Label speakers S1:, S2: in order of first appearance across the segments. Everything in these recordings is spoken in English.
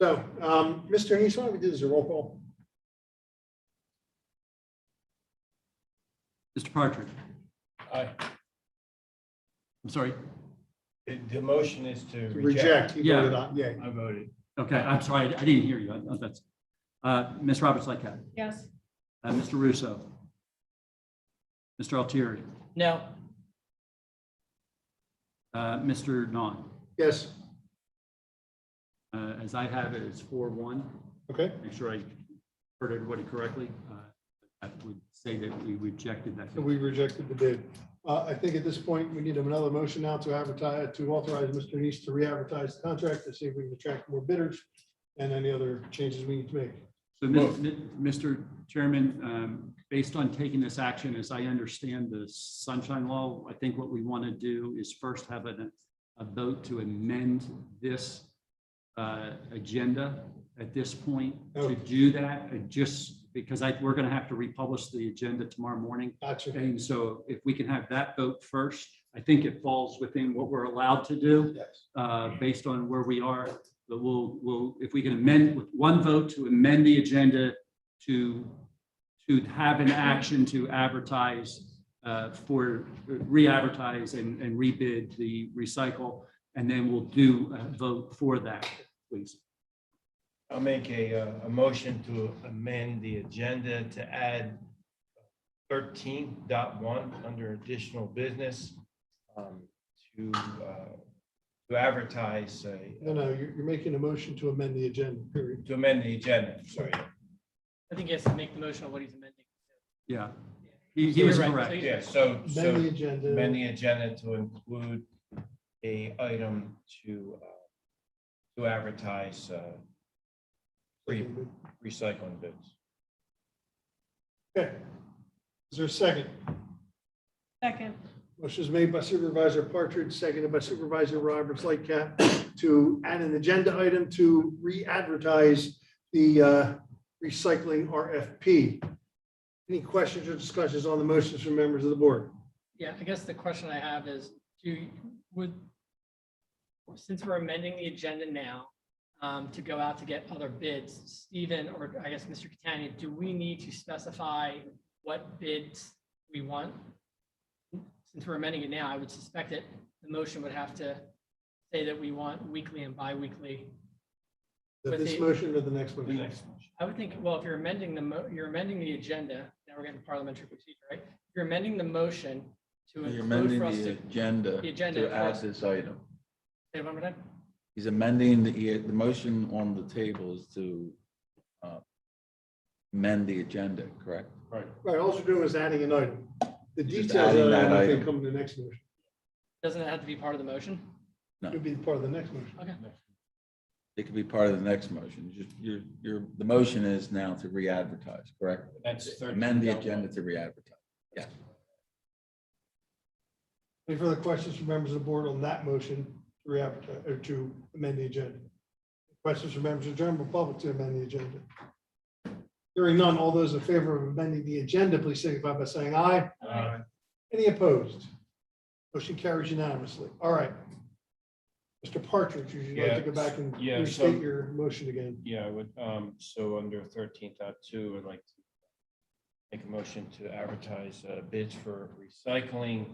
S1: So, um, Mr. Nice, why don't we do this as a roll call?
S2: Mr. Partridge,
S3: Aye.
S2: I'm sorry.
S3: The, the motion is to reject.
S1: Reject. You voted aye. Yeah.
S3: I voted.
S2: Okay, I'm sorry, I didn't hear you. I- That's, uh, Ms. Roberts Lightcap,
S4: Yes.
S2: uh, Mr. Russo, Mr. Altieri,
S4: No.
S2: uh, Mr. Non.
S1: Yes,
S2: Uh, as I have it, it's four one.
S1: okay,
S2: Make sure I heard everybody correctly. Uh, I would say that we rejected that.
S1: so we rejected the bid. Uh, I think at this point, we need another motion now to advertise, to authorize Mr. Nice to re-advertise the contract to see if we can attract more bidders and any other changes we need to make.
S2: So, Mis- Mi- Mr. Chairman, um, based on taking this action, as I understand the sunshine law, I think what we want to do is first have a, a vote to amend this uh, agenda at this point.
S1: Oh.
S2: To do that, I just because I, we're going to have to republish the agenda tomorrow morning.
S1: Gotcha.
S2: And so if we can have that vote first, I think it falls within what we're allowed to do
S1: Yes.
S2: uh, based on where we are. But we'll, we'll, if we can amend with one vote to amend the agenda to, to have an action to advertise uh, for, re-advertise and, and rebid the recycle. And then we'll do a vote for that, please.
S3: I'll make a, uh, a motion to amend the agenda to add 13.1 under additional business um, to, uh, to advertise, a-
S1: No, no, you're, you're making a motion to amend the agenda, period.
S3: to amend the agenda, sorry.
S5: I think he has to make the motion on what he's amending.
S2: Yeah. He he was
S5: You're right. So
S2: correct.
S5: he's-
S3: Yeah, so, so.
S1: Amend the agenda.
S3: amend the agenda to include a item to, uh, to advertise uh, re- recycling bids.
S1: Okay. Is there a second?
S4: Second.
S1: Motion is made by Supervisor Partridge, seconded by Supervisor Roberts Lightcap to add an agenda item to re-advertise the uh, recycling RFP. Any questions or discussions on the motions from members of the board?
S5: Yeah, I guess the question I have is, do, you- would, since we're amending the agenda now um, to go out to get other bids, Stephen, or I guess Mr. Catania, do we need to specify what bids we want? Since we're amending it now, I would suspect that the motion would have to say that we want weekly and biweekly.
S1: That This
S5: With the-
S1: motion or the next
S3: The
S1: motion?
S3: next motion.
S5: I would think, well, if you're amending the, mo- you're amending the agenda, now we're getting parliamentary procedure, right? You're amending the motion to
S6: You're
S5: include
S6: amending
S5: for us
S6: the uh,
S5: to,
S6: agenda
S5: the agenda
S6: to
S5: for
S6: add
S5: us-
S6: this item.
S5: Say it one more time?
S6: He's amending the, the motion on the table is to uh, amend the agenda, correct?
S1: Right, all you're doing is adding an item. The
S6: Just
S1: details
S6: adding
S1: of that
S6: that
S1: I think
S6: item.
S1: come in the next motion.
S5: Doesn't it have to be part of the motion?
S6: No.
S1: It'll be part of the next motion.
S5: Okay.
S6: It could be part of the next motion. Just- Your, your, the motion is now to re-advertise, correct?
S3: That's thirteen.
S6: Amend the agenda to re-advertise.
S1: Any further questions from members of the board on that motion to re-advertise, or to amend the agenda? Questions from members of the general public to amend the agenda? Hearing none, all those in favor of amending the agenda, please signify by saying aye.
S3: Aye.
S1: Any opposed? Motion carries unanimously. All right. Mr. Partridge, would you like to go back and
S3: Yeah, yeah, so-
S1: restate your motion again?
S3: Yeah, I would, um, so under thirteen dot two, I'd like to make a motion to advertise uh, bids for recycling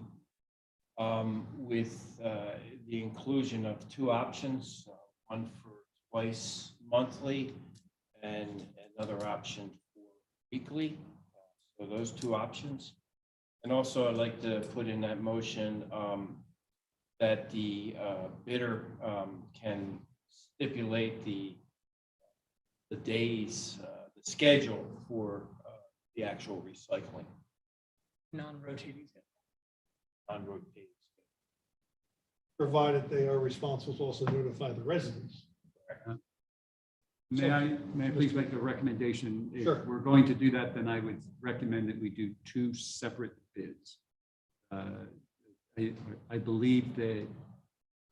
S3: um, with, uh, the inclusion of two options, uh, one for twice monthly and another option for weekly. So those two options. And also I'd like to put in that motion, um, that the, uh, bidder, um, can stipulate the the days, uh, the schedule for uh, the actual recycling
S5: Non-rotating.
S3: on road days.
S1: Provided they are responsible to also notify the residents.
S2: May I, may I please make a recommendation?
S1: Sure.
S2: If we're going to do that, then I would recommend that we do two separate bids. Uh, I, I believe that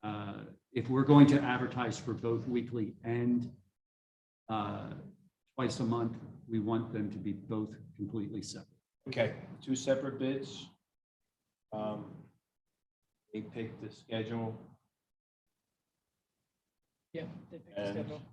S2: uh, if we're going to advertise for both weekly and uh, twice a month, we want them to be both completely separate.
S3: Okay, two separate bids. Um, They picked the schedule
S5: Yeah. they pick the
S3: and
S5: schedule.